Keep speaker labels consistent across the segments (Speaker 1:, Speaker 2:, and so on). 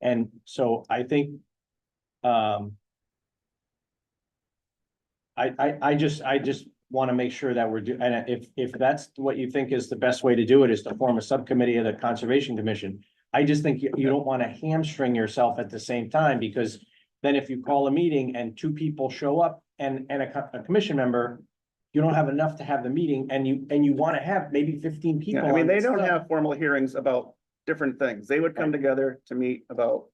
Speaker 1: And so I think. Um. I, I, I just, I just want to make sure that we're do, and if, if that's what you think is the best way to do it is to form a subcommittee of the Conservation Commission. I just think you, you don't want to hamstring yourself at the same time because then if you call a meeting and two people show up and, and a, co- a commission member. You don't have enough to have the meeting and you, and you want to have maybe fifteen
Speaker 2: Yeah,
Speaker 1: people.
Speaker 2: I mean,
Speaker 1: on
Speaker 2: they
Speaker 1: this
Speaker 2: don't
Speaker 1: stuff.
Speaker 2: have formal hearings about different things. They would come together to meet about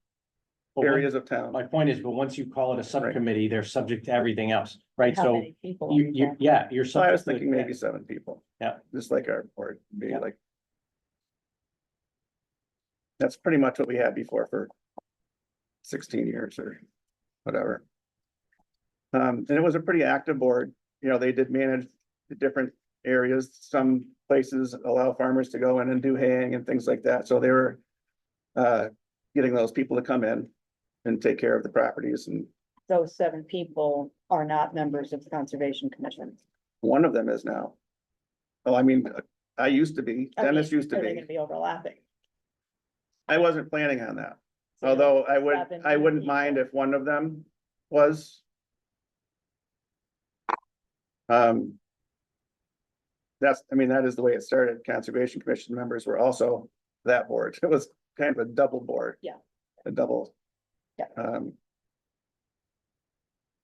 Speaker 1: But what-
Speaker 2: areas of town.
Speaker 1: My point is, but once you call it a subcommittee, they're subject to everything else, right?
Speaker 3: How
Speaker 1: So
Speaker 3: many people are
Speaker 1: you, you,
Speaker 3: involved?
Speaker 1: yeah, you're.
Speaker 2: So I was
Speaker 1: subject to-
Speaker 2: thinking maybe seven people.
Speaker 1: Yeah.
Speaker 2: Just like our board, maybe
Speaker 1: Yeah.
Speaker 2: like. That's pretty much what we had before for sixteen years or whatever. Um, and it was a pretty active board, you know, they did manage the different areas, some places allow farmers to go in and do haying and things like that, so they were. Uh, getting those people to come in and take care of the properties and
Speaker 3: Those seven people are not members of the Conservation Commission.
Speaker 2: one of them is now. Oh, I mean, I used to be,
Speaker 3: I mean,
Speaker 2: Dennis used to
Speaker 3: Are they
Speaker 2: be.
Speaker 3: gonna be overlapping?
Speaker 2: I wasn't planning on that,
Speaker 3: So
Speaker 2: although I would,
Speaker 3: seven
Speaker 2: I wouldn't
Speaker 3: people.
Speaker 2: mind if one of them was. Um. That's, I mean, that is the way it started. Conservation Commission members were also that board. It was kind of a double board.
Speaker 3: Yeah.
Speaker 2: A double.
Speaker 3: Yeah.
Speaker 2: Um,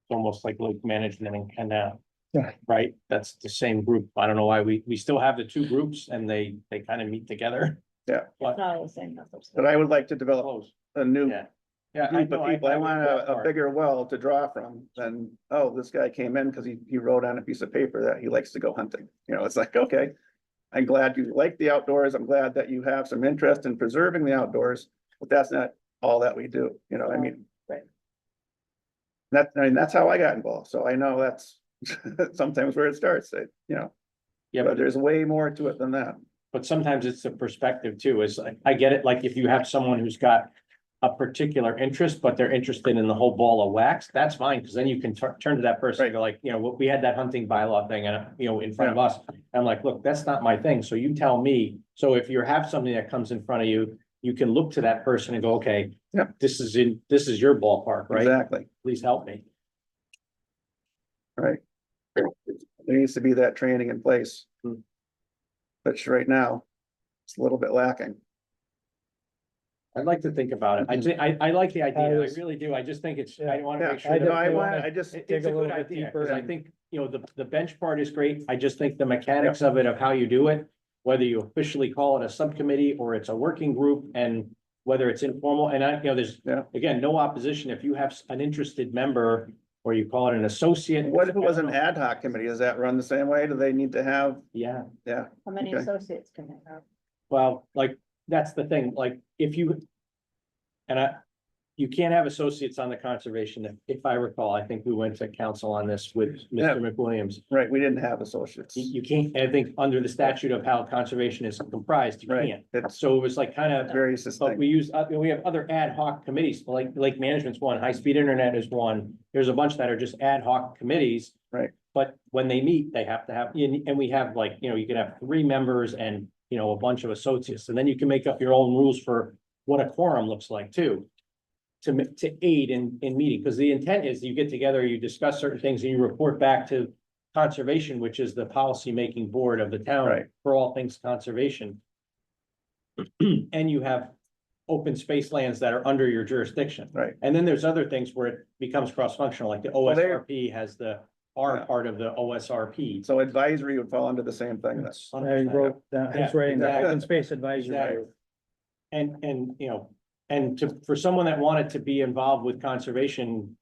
Speaker 1: It's Almost like lake management and canal.
Speaker 2: Yeah.
Speaker 1: Right? That's the same group. I don't know why we, we still have the two groups and they, they kind of meet together.
Speaker 3: It's not all the same numbers.
Speaker 2: but I would like to develop
Speaker 1: Close.
Speaker 2: a new
Speaker 1: Yeah. Yeah.
Speaker 2: group of
Speaker 1: know,
Speaker 2: people. I
Speaker 1: would
Speaker 2: want
Speaker 1: go
Speaker 2: a, a
Speaker 1: for it.
Speaker 2: bigger well to draw from than, oh, this guy came in because he, he wrote on a piece of paper that he likes to go hunting. You know, it's like, okay. I'm glad you like the outdoors. I'm glad that you have some interest in preserving the outdoors, but that's not all that we do, you know, I mean.
Speaker 3: Right.
Speaker 2: That, I mean, that's how I got involved. So I know that's sometimes where it starts, I- you know,
Speaker 1: Yeah,
Speaker 2: but
Speaker 1: but,
Speaker 2: there's way more to it than that.
Speaker 1: but sometimes it's the perspective too, is I, I get it, like if you have someone who's got. A particular interest, but they're interested in the whole ball of wax, that's fine, because then you can tur- turn to that person, and go like, you know, we had that hunting bylaw thing and, you know, in front of us. I'm like, look, that's not my thing, so you tell me, so if you have something that comes in front of you, you can look to that person and go, okay.
Speaker 2: Yeah.
Speaker 1: This is in, this is your ballpark, right?
Speaker 2: Exactly,
Speaker 1: Please help me.
Speaker 2: right. There needs to be that training in place.
Speaker 1: Hmm.
Speaker 2: Which right now, it's a little bit lacking.
Speaker 1: I'd like to think about it, I
Speaker 2: Mhm.
Speaker 1: thi- I, I like the idea, I
Speaker 4: I was-
Speaker 1: really do, I just think it's, I wanna make sure.
Speaker 4: I
Speaker 1: that-
Speaker 2: No, I
Speaker 4: definitely
Speaker 2: want,
Speaker 4: wanna
Speaker 2: I just,
Speaker 1: It-
Speaker 4: dig
Speaker 1: It's a
Speaker 4: a
Speaker 1: good
Speaker 4: little bit
Speaker 1: idea,
Speaker 4: deeper
Speaker 1: because I
Speaker 2: and-
Speaker 1: think, you know, the, the bench part is great. I just think the mechanics of it, of how you do it, whether you officially call it a subcommittee or it's a working group and whether it's informal, and I, you know, there's,
Speaker 2: Yeah.
Speaker 1: again, no opposition if you have s- an interested member or you call it an associate.
Speaker 2: what if it was an ad hoc committee? Does that run the same way? Do they need to have,
Speaker 1: Yeah.
Speaker 2: yeah,
Speaker 3: How many
Speaker 2: okay.
Speaker 3: associates can they have?
Speaker 1: Well, like, that's the thing, like, if you. And I, you can't have associates on the conservation, if I recall, I think we went to council on this with
Speaker 2: Yeah.
Speaker 1: Mr. McWilliams.
Speaker 2: right, we didn't have associates.
Speaker 1: You, you can't, I think, under the statute of how conservation is comprised, you
Speaker 2: Right,
Speaker 1: can't.
Speaker 2: it's
Speaker 1: So it was like kind of,
Speaker 2: very
Speaker 1: but
Speaker 2: distinct.
Speaker 1: we use, uh, we have other ad hoc committees, like, Lake management's one, high-speed internet is one. There's a bunch that are just ad hoc committees.
Speaker 2: Right.
Speaker 1: But when they meet, they have to have, and, and we have like, you know, you can have three members and, you know, a bunch of associates. And then you can make up your own rules for what a quorum looks like too. To, ma- to aid in, in meeting, because the intent is you get together, you discuss certain things and you report back to conservation, which is the policy-making board of the
Speaker 2: Right.
Speaker 1: town for all things conservation. And you have open space lands that are under your jurisdiction.
Speaker 2: Right.
Speaker 1: And then there's other things where it becomes cross-functional, like the
Speaker 2: there-
Speaker 1: OSRP has the R part of the OSRP.
Speaker 2: So advisory would fall under the same thing. then.
Speaker 1: It's
Speaker 4: I wrote down,
Speaker 1: Yeah,
Speaker 4: he's writing the
Speaker 1: exactly.
Speaker 4: open space advisory.
Speaker 1: Exactly. And, and, you know, and to, for someone that wanted to be involved with conservation,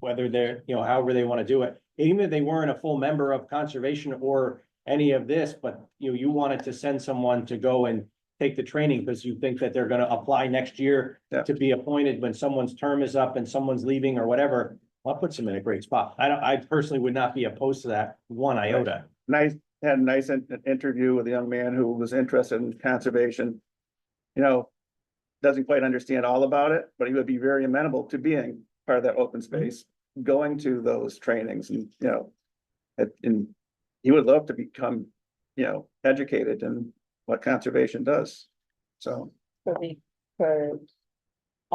Speaker 1: whether they're, you know, however they want to do it, even if they weren't a full member of conservation or any of this, but you, you wanted to send someone to go and take the training because you think that they're going to apply next year
Speaker 2: Yeah.
Speaker 1: to be appointed when someone's term is up and someone's leaving or whatever, well, that puts them in a great spot. I don't, I personally would not be opposed to that one iota.
Speaker 2: And I had a nice in- interview with a young man who was interested in conservation. You know, doesn't quite understand all about it, but he would be very amenable to being part of that open space, going to those trainings and, you know. it- And he would love to become, you know, educated in what conservation does. So
Speaker 3: So we could